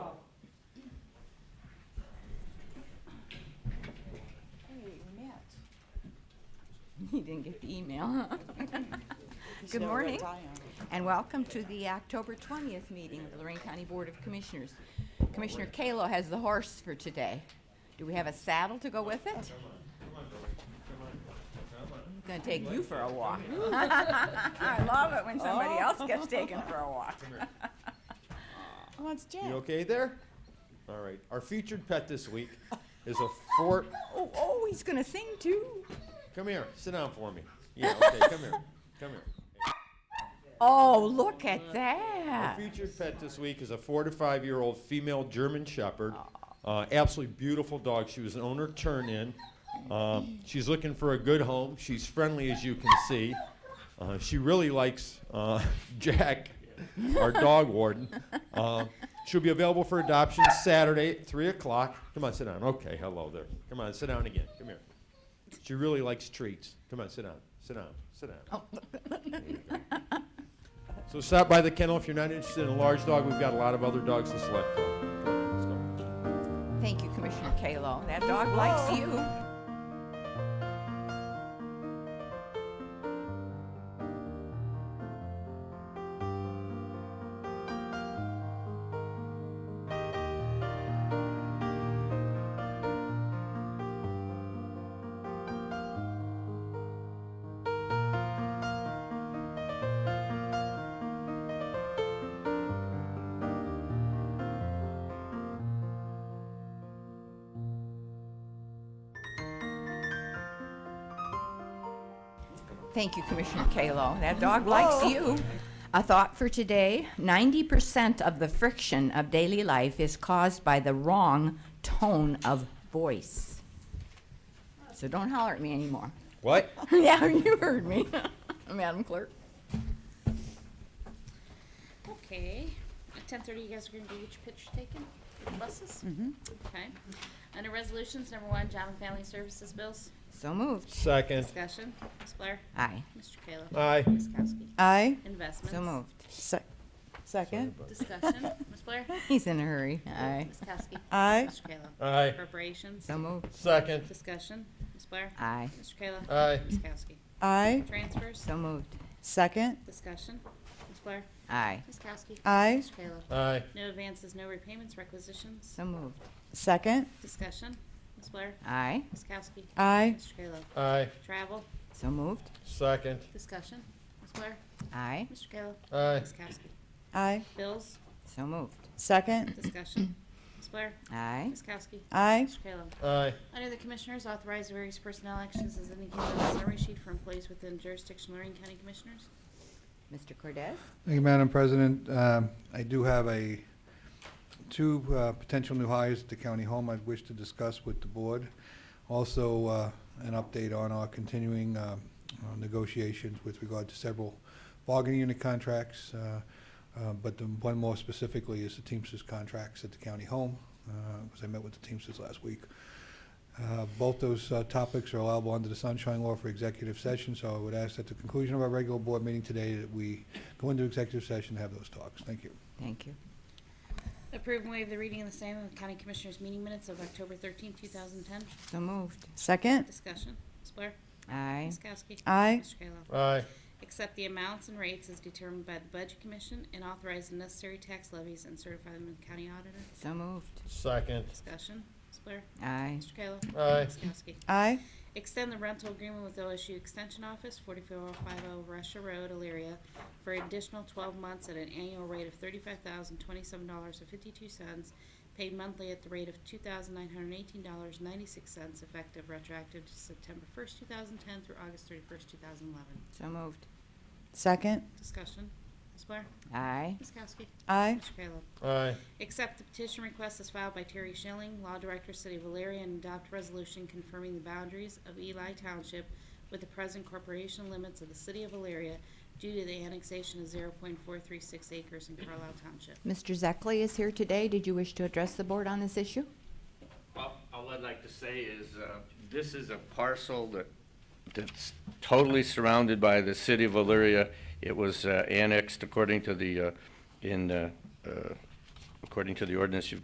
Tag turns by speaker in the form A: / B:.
A: You didn't get the email, huh? Good
B: No, we're
A: morning,
B: dying.
A: and welcome to the October 20th meeting of the Lorraine County Board of Commissioners. Commissioner Kalo has the horse for today. Do we have a saddle to go with it? I'm Gonna take you for a walk. I love it when somebody else gets taken for a walk.
B: Oh, it's
C: You
B: Jack.
C: okay there? All right. Our featured pet this week is a four.
A: Oh, oh, he's gonna sing too.
C: Come here. Sit down for me. Yeah, okay. Come here. Come here.
A: Oh, look at
C: Our
A: that.
C: featured pet this week is a four to five year old female German Shepherd. Uh, absolutely beautiful dog. She was an owner turn in. Um, she's looking for a good home. She's friendly, as you can see. Uh, she really likes uh, Jack, our dog warden. Uh, she'll be available for adoption Saturday at 3 o'clock. Come on, sit down. Okay, hello there. Come on, sit down again. Come here. She really likes treats. Come on, sit down. Sit down. Sit down. So stop by the kennel if you're not interested in a large dog. We've got a lot of other dogs to select from. Come on, let's go.
A: Thank you, Commissioner Kalo. That dog likes you. Thank you, Commissioner Kalo. That dog likes you. A thought for today 90% of the friction of daily life is caused by the wrong tone of voice. So don't holler at me anymore.
C: What?
A: yeah, you heard me, Madam Clerk.
D: Okay, at ten thirty, you guys are gonna do each pitch taken, with buses? Mm-hmm. Okay. Under resolutions, number one, job and family services bills,
A: So moved.
C: Second.
D: discussion, Ms. Blair,
A: Aye.
D: Mr. Kayla.
C: Aye.
D: Ms. Kowski.
B: Aye.
D: Investments.
A: So moved.
B: Sec- Second.
D: Discussion, Ms. Blair,
A: He's in a hurry. Aye.
D: Ms. Kowski.
B: Aye.
D: Mr. Kayla.
C: Aye.
D: Appropriations,
A: So moved.
C: Second.
D: discussion, Ms. Blair,
A: Aye.
D: Mr. Kayla.
C: Aye.
D: Ms. Kowski.
B: Aye.
D: Transfers,
A: So moved.
B: Second.
D: discussion, Ms. Blair,
A: Aye.
D: Ms. Kowski.
B: Aye.
D: Mr. Kayla.
C: Aye.
D: No advances, no repayments, requisitions,
A: So moved.
B: Second.
D: discussion, Ms. Blair,
A: Aye.
D: Ms. Kowski.
B: Aye.
D: Mr. Kayla.
C: Aye.
D: Travel,
A: So moved.
C: Second.
D: discussion, Ms. Blair,
A: Aye.
D: Mr. Kayla,
C: Aye.
D: Ms. Kowski.
B: Aye.
D: Bills,
A: So moved.
B: Second.
D: discussion, Ms. Blair,
A: Aye.
D: Ms. Kowski,
B: Aye.
D: Mr. Kayla.
C: Aye.
D: Under the Commissioners, authorize various personnel actions as indicated on the summary sheet for employees within jurisdiction of Lorraine County Commissioners.
A: Mr. Cordez?
E: Thank you, Madam President. Um, I do have a, two uh, potential new hires at the county home I'd wish to discuss with the board. Also, uh, an update on our continuing uh, uh, negotiations with regard to several bargaining unit contracts. uh, uh, But the one more specifically is the Teamsters contracts at the county home, because I met with the Teamsters last week. Uh, Both those uh, topics are allowable under the sunshine law for executive session, so I would ask at the conclusion of our regular board meeting today that we go into executive session and have those talks. Thank you.
A: Thank you.
D: Approve and waive the reading of the same in the County Commissioners meeting minutes of October thirteenth, two thousand ten.
A: So moved.
B: Second.
D: Discussion, Ms. Blair,
A: Aye.
D: Ms. Kowski.
B: Aye.
D: Mr. Kayla.
C: Aye.
D: Accept the amounts and rates as determined by the Budget Commission and authorize the necessary tax levies and certify them in the County Auditor.
A: So moved.
C: Second.
D: Discussion, Ms. Blair,
A: Aye.
D: Mr. Kayla.
C: Aye.
D: Ms. Kowski.
B: Aye.
D: Extend the rental agreement with OSU Extension Office, 44050 Russia Road, Elyria, for additional 12 months at an annual rate of $35,027.52, paid monthly at the rate of $2,918.96, effective retroactive to September 1st, 2010 through August 31st, 2011.
A: So moved.
B: Second.
D: Discussion. Ms. Blair?
A: Aye.
D: Ms. Kowski?
B: Aye.
D: Mr. Kayla?
C: Aye.
D: Accept the petition request as filed by Terry Schilling, Law Director, City of Valeria, and adopt resolution confirming the boundaries of Eli Township with the present corporation limits of the City of Valeria due to the annexation of 0.436 acres in Carlisle Township.
A: Mr. Zekley is here today. Did you wish to address the board on this issue?
F: Well, all I'd like to say is, uh, this is a parcel that, that's totally surrounded by the city of Elyria. It was uh, annexed according to the, uh, in, uh, uh, according to the ordinance you've